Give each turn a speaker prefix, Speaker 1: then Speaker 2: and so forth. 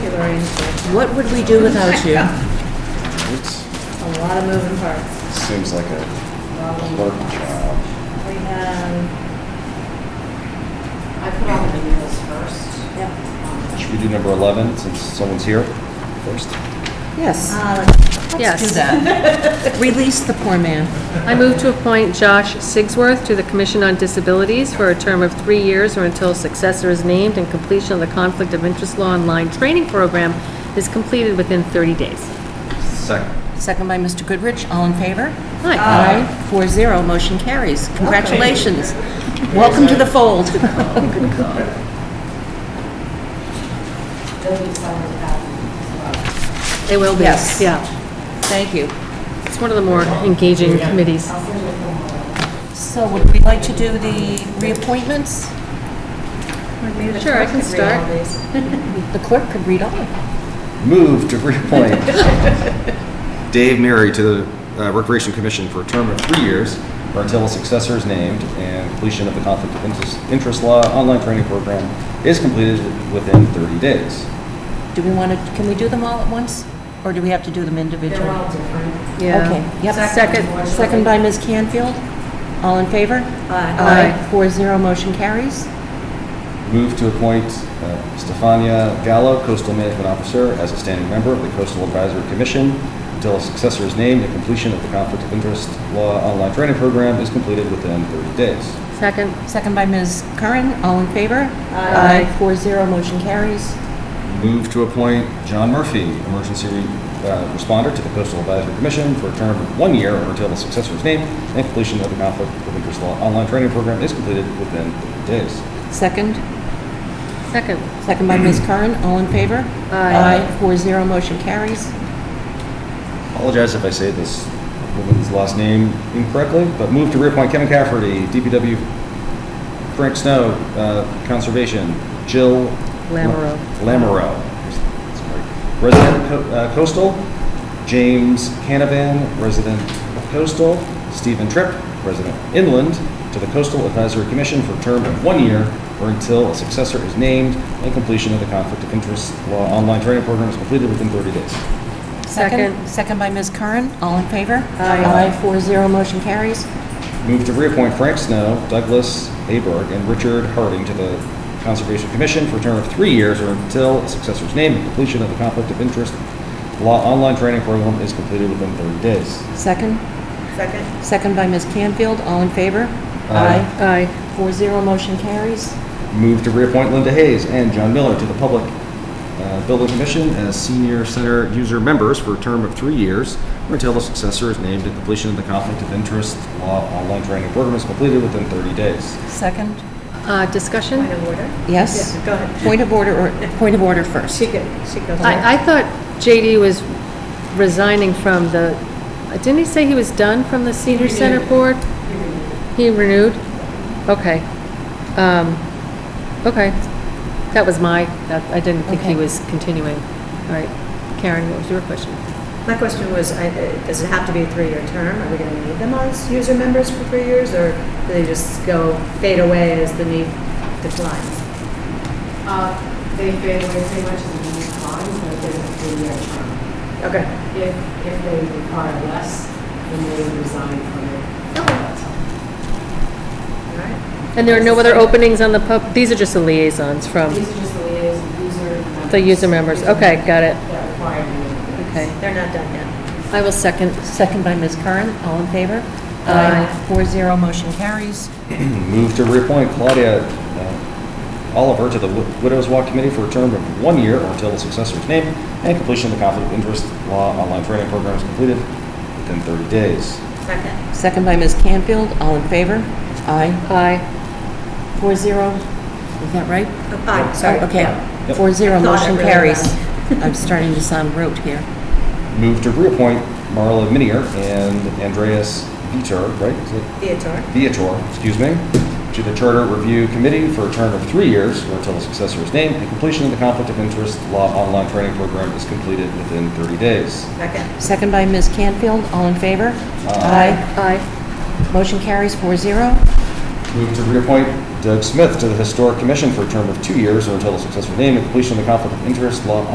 Speaker 1: Lorraine,
Speaker 2: What would we do without you?
Speaker 3: It
Speaker 1: a lot of moving parts.
Speaker 3: seems like a clerk job.
Speaker 1: We have,
Speaker 4: I put all the emails first.
Speaker 1: yeah,
Speaker 3: Should we do number 11 since someone's here first?
Speaker 2: Yes,
Speaker 1: uh,
Speaker 2: yes.
Speaker 4: Do that.
Speaker 2: Release the poor man.
Speaker 5: I move to appoint Josh Sigsworth to the Commission on Disabilities for a term of three years or until a successor is named and completion of the Conflict of Interest Law Online Training Program is completed within 30 days.
Speaker 3: Second.
Speaker 2: Second by Mr. Goodrich, all in favor?
Speaker 5: Hi.
Speaker 2: Aye. Four zero, motion carries. Congratulations. Welcome to the fold.
Speaker 4: There'll be some of that as well.
Speaker 5: They will be,
Speaker 2: Yes.
Speaker 5: yeah.
Speaker 2: Thank you.
Speaker 5: It's one of the more engaging committees.
Speaker 2: So would we like to do the reappointments?
Speaker 1: maybe the
Speaker 5: Sure, I
Speaker 1: clerk
Speaker 5: can
Speaker 1: could read all
Speaker 5: start.
Speaker 1: these.
Speaker 2: The clerk could read all of them.
Speaker 3: Move to reappoint Dave Mary to the uh, Recreation Commission for a term of three years or until a successor is named and completion of the Conflict of Interest- Interest Law online training program is completed within 30 days.
Speaker 2: Do we want to, can we do them all at once? Or do we have to do them individually?
Speaker 4: They're all different.
Speaker 5: Yeah.
Speaker 2: Okay, yep.
Speaker 5: Second.
Speaker 2: Second by Ms. Canfield. All in favor?
Speaker 1: Uh,
Speaker 5: Aye.
Speaker 2: Four zero, motion carries.
Speaker 3: Move to appoint uh, Stefania Gallo, Coastal Management Officer, as a standing member of the Coastal Advisory Commission until a successor is named and completion of the Conflict of Interest Law online training program is completed within 30 days.
Speaker 5: Second,
Speaker 2: Second by Ms. Curran, all in favor?
Speaker 5: Aye.
Speaker 2: Four zero, motion carries.
Speaker 3: Move to appoint John Murphy, Emergency re- uh, Responder to the Coastal Advisory Commission for a term of one year or until a successor is named and completion of the Conflict of Interest Law online training program is completed within 30 days.
Speaker 2: Second,
Speaker 5: second.
Speaker 2: second by Ms. Curran, all in favor?
Speaker 5: Aye.
Speaker 2: Four zero, motion carries.
Speaker 3: Apologize if I say this woman's last name incorrectly, but move to reappoint Kevin Cafferty, DPW, Frank Snow, uh, Conservation, Jill...
Speaker 5: Lamoureux.
Speaker 3: Lamoureux. Sorry. Resident Co- uh, Coastal, James Canavan, Resident Coastal, Stephen Tripp, Resident Inland, to the Coastal Advisory Commission for a term of one year or until a successor is named and completion of the Conflict of Interest Law online training program is completed within 30 days.
Speaker 5: Second.
Speaker 2: Second by Ms. Curran, all in favor?
Speaker 5: Aye.
Speaker 2: Four zero, motion carries.
Speaker 3: Move to reappoint Frank Snow, Douglas Aberg, and Richard Harding to the Conservation Commission for a term of three years or until a successor's name and completion of the Conflict of Interest Law Online Training Program is completed within 30 days.
Speaker 2: Second,
Speaker 1: Second,
Speaker 2: second by Ms. Canfield, all in favor?
Speaker 3: Aye.
Speaker 5: Aye.
Speaker 2: Four zero, motion carries.
Speaker 3: Move to reappoint Linda Hayes and John Miller to the Public uh, Building Commission as senior center user members for a term of three years or until a successor is named and completion of the Conflict of Interest Law Online Training Program is completed within 30 days.
Speaker 2: Second,
Speaker 5: Uh, Discussion?
Speaker 1: point of order?
Speaker 2: yes?
Speaker 1: Yeah, Go ahead.
Speaker 2: Point of order, or, point of order first.
Speaker 1: She could, she goes.
Speaker 5: I, I thought JD was resigning from the, didn't he say he was done from the senior center board? He renewed? Okay. Um, okay. That was my, that, I didn't think he
Speaker 2: Okay.
Speaker 5: was continuing. All right. Karen, what was your question?
Speaker 1: My question was, I- uh, does it have to be a three-year term? Are we going to need them as user members for three years, or do they just go fade away as the need declines?
Speaker 4: Uh, They fade away pretty much as the years gone, but there's a three-year term.
Speaker 1: Okay.
Speaker 4: If, if they require less, then they resign from it. That's all.
Speaker 1: All right.
Speaker 5: And there are no other openings on the pub, these are just the liaisons from
Speaker 4: These are just the liaison, user members.
Speaker 5: the user members. Okay, got it.
Speaker 4: That require you.
Speaker 5: Okay.
Speaker 1: They're not done yet.
Speaker 5: I will second.
Speaker 2: Second by Ms. Curran, all in favor?
Speaker 5: Aye.
Speaker 2: Four zero, motion carries.
Speaker 3: Move to reappoint Claudia uh, Oliver to the Wi- Widows Walk Committee for a term of one year or until a successor is named and completion of the Conflict of Interest Law online training program is completed within 30 days.
Speaker 1: Second.
Speaker 2: Second by Ms. Canfield, all in favor? Aye.
Speaker 5: Aye.
Speaker 2: Four zero, is that right?
Speaker 1: Oh, Aye, sorry.
Speaker 2: Oh, Okay,
Speaker 3: Yep.
Speaker 2: four zero,
Speaker 1: Thought it
Speaker 2: motion
Speaker 1: really
Speaker 2: carries.
Speaker 1: was.
Speaker 2: I'm starting to sound rote here.
Speaker 3: Move to reappoint Marla Minier and Andreas Vitor, right? Is it
Speaker 1: Theodore.
Speaker 3: Viator, excuse me, to the Charter Review Committee for a term of three years or until a successor is named and completion of the Conflict of Interest Law online training program is completed within 30 days.
Speaker 1: Second.
Speaker 2: Second by Ms. Canfield, all in favor?
Speaker 3: Aye.
Speaker 5: Aye.
Speaker 2: Aye. Motion carries four zero.
Speaker 3: Move to reappoint Doug Smith to the Historic Commission for a term of two years or until a successor is named and completion of the Conflict of Interest Law